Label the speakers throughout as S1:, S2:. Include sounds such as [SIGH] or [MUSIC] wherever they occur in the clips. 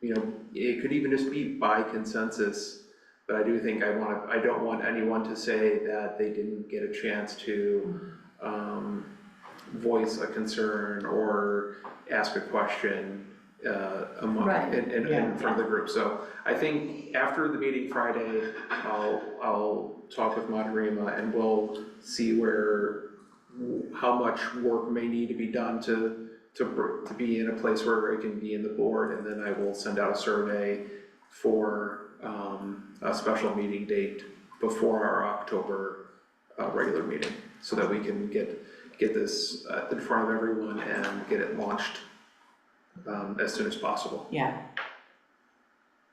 S1: you know, it could even just be by consensus. But I do think I wanna, I don't want anyone to say that they didn't get a chance to, um, voice a concern or ask a question, uh, among,
S2: Right.
S1: in, in,
S3: Yeah.
S1: in front of the group. So I think after the meeting Friday, I'll, I'll talk with Madarima and we'll see where, how much work may need to be done to, to, br- to be in a place where it can be in the board, and then I will send out a survey for, um, a special meeting date before our October, uh, regular meeting, so that we can get, get this, uh, in front of everyone and get it launched, um, as soon as possible.
S3: Yeah,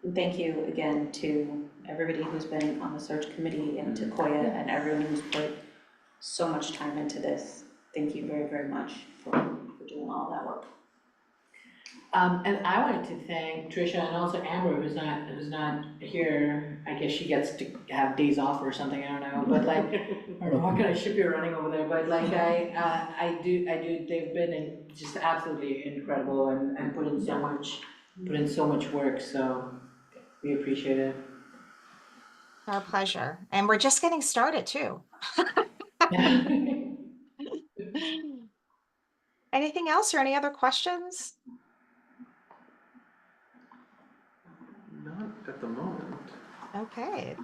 S2: And Thank you again to everybody who's been on the search committee and to
S4: Mm-hmm.
S2: Koya and everyone who's put so much time into this. Thank you very, very much for, for doing all that work.
S3: um, and I wanted to thank Tricia and also Amber, who's not, who's not here, I guess she gets to have days off or something, I don't know, but [LAUGHS] like, I don't know, what kind of ship you're running over there, but like, I, uh, I do, I do, they've been in- just absolutely incredible and, and put in so much, put in so much work, so we appreciate [LAUGHS] it.
S5: Our pleasure. And we're just getting started too. Anything else or any other questions?
S1: Not at the moment.
S5: Okay.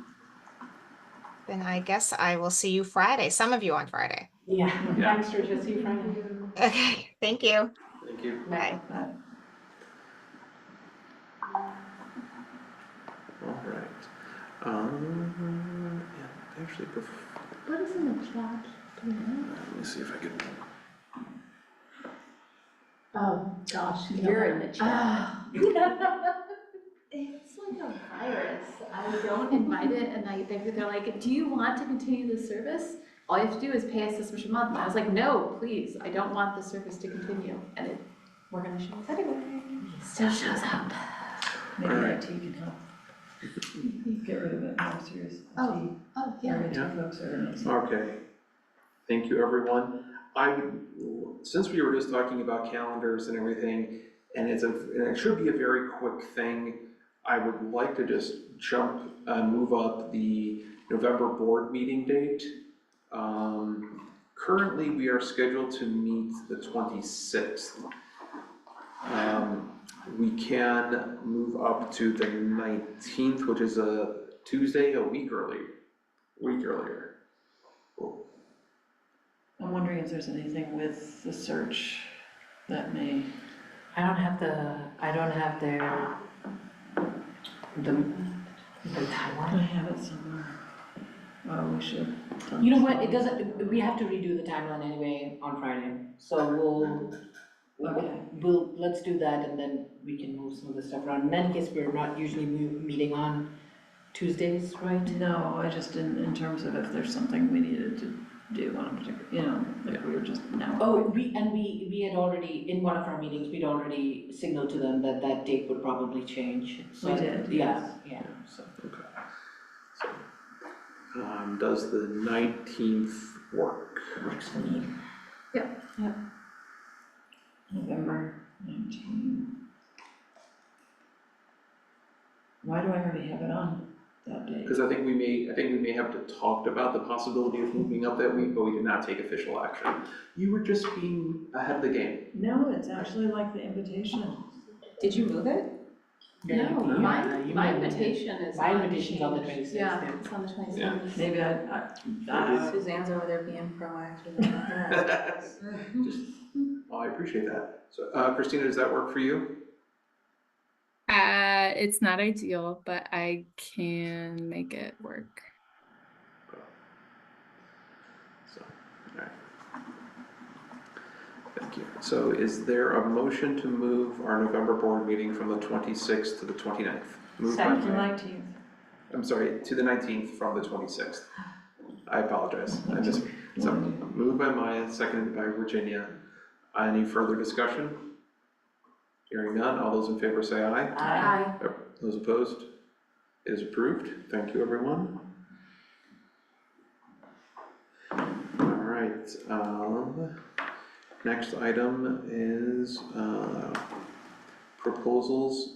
S5: Then I guess I will see you Friday, some of you on Friday. [LAUGHS]
S3: Yeah,
S1: Yeah.
S3: thanks Tricia, see you Friday.
S5: Okay, thank you.
S1: Thank you.
S5: Bye.
S1: All right. Um, yeah, actually, bef-
S6: What is in the chat?
S1: let me see if I can.
S6: Oh, gosh, you know
S2: You're
S6: what?
S2: in the chat.
S6: Ah. [LAUGHS] It's like a virus. I don't invite it and I, they- they're like, do you want to continue the service? All you have to do is pay us this much a month. And I was like, no, please, I don't want the service to continue. And it, we're gonna show up anyway. Still shows up.
S4: Maybe
S1: Alright.
S4: that tea can help. Get rid of the monsters,
S6: Oh,
S4: tea,
S6: oh, yeah.
S4: every time folks are.
S1: Okay. Thank you, everyone. I, since we were just talking about calendars and everything, and it's a, and it should be a very quick thing, I would like to just jump, uh, move up the November board meeting date. Um, currently, we are scheduled to meet the twenty-sixth. Um, we can move up to the nineteenth, which is a Tuesday, a week early, week earlier.
S4: I'm wondering if there's anything with the search that may,
S3: I don't have the, I don't have their, the, the
S4: I
S3: timeline.
S4: have it somewhere. Oh, we should.
S3: You know what, it doesn't, we have to redo the timeline anyway on Friday, so we'll,
S4: Okay.
S3: we'll- we'll, let's do that and then we can move some of the stuff around. In any case, we're not usually mu- meeting on Tuesdays, right?
S4: No, I just didn't, in terms of if there's something we needed to do on a particular, you know, like we were just now.
S3: Oh, we, and we, we had already, in one of our meetings, we'd already signaled to them that that date would probably change, so.
S4: We did,
S3: Yeah, yeah, so.
S1: Um, does the nineteenth work?
S3: Works for me.
S4: November nineteen. Why do I already have it on that day?
S1: Because I think we may, I think we may have to talked about the possibility of moving up that week, but we did not take official action. You were just being ahead of the game.
S4: No, it's actually like the invitation.
S2: Did you move it?
S6: No,
S3: Yeah,
S6: my,
S3: you
S6: my
S3: might want to-
S6: invitation is
S3: my
S6: on the
S3: invitation's on the 26th, yeah.
S6: Yeah, it's on the twenty-sixth.
S4: Maybe I, I, I,
S2: Suzanne's over there being proactive about that.
S4: [LAUGHS]
S1: Well, I appreciate that. So, uh, Christina, does that work for you?
S7: Uh, it's not ideal, but I can make it work.
S1: So, alright. Thank you. So is there a motion to move our November board meeting from the twenty-sixth to the 29th? Move by-
S4: September nineteenth.
S1: I'm sorry, to the nineteenth from the twenty-sixth. I apologize, I mis, so, moved by Maya, seconded by Virginia. Any further discussion? Hearing none, all those in favor say aye.
S3: I-
S1: Those opposed? It is approved, thank you, everyone. All right, um, next item is, uh, proposals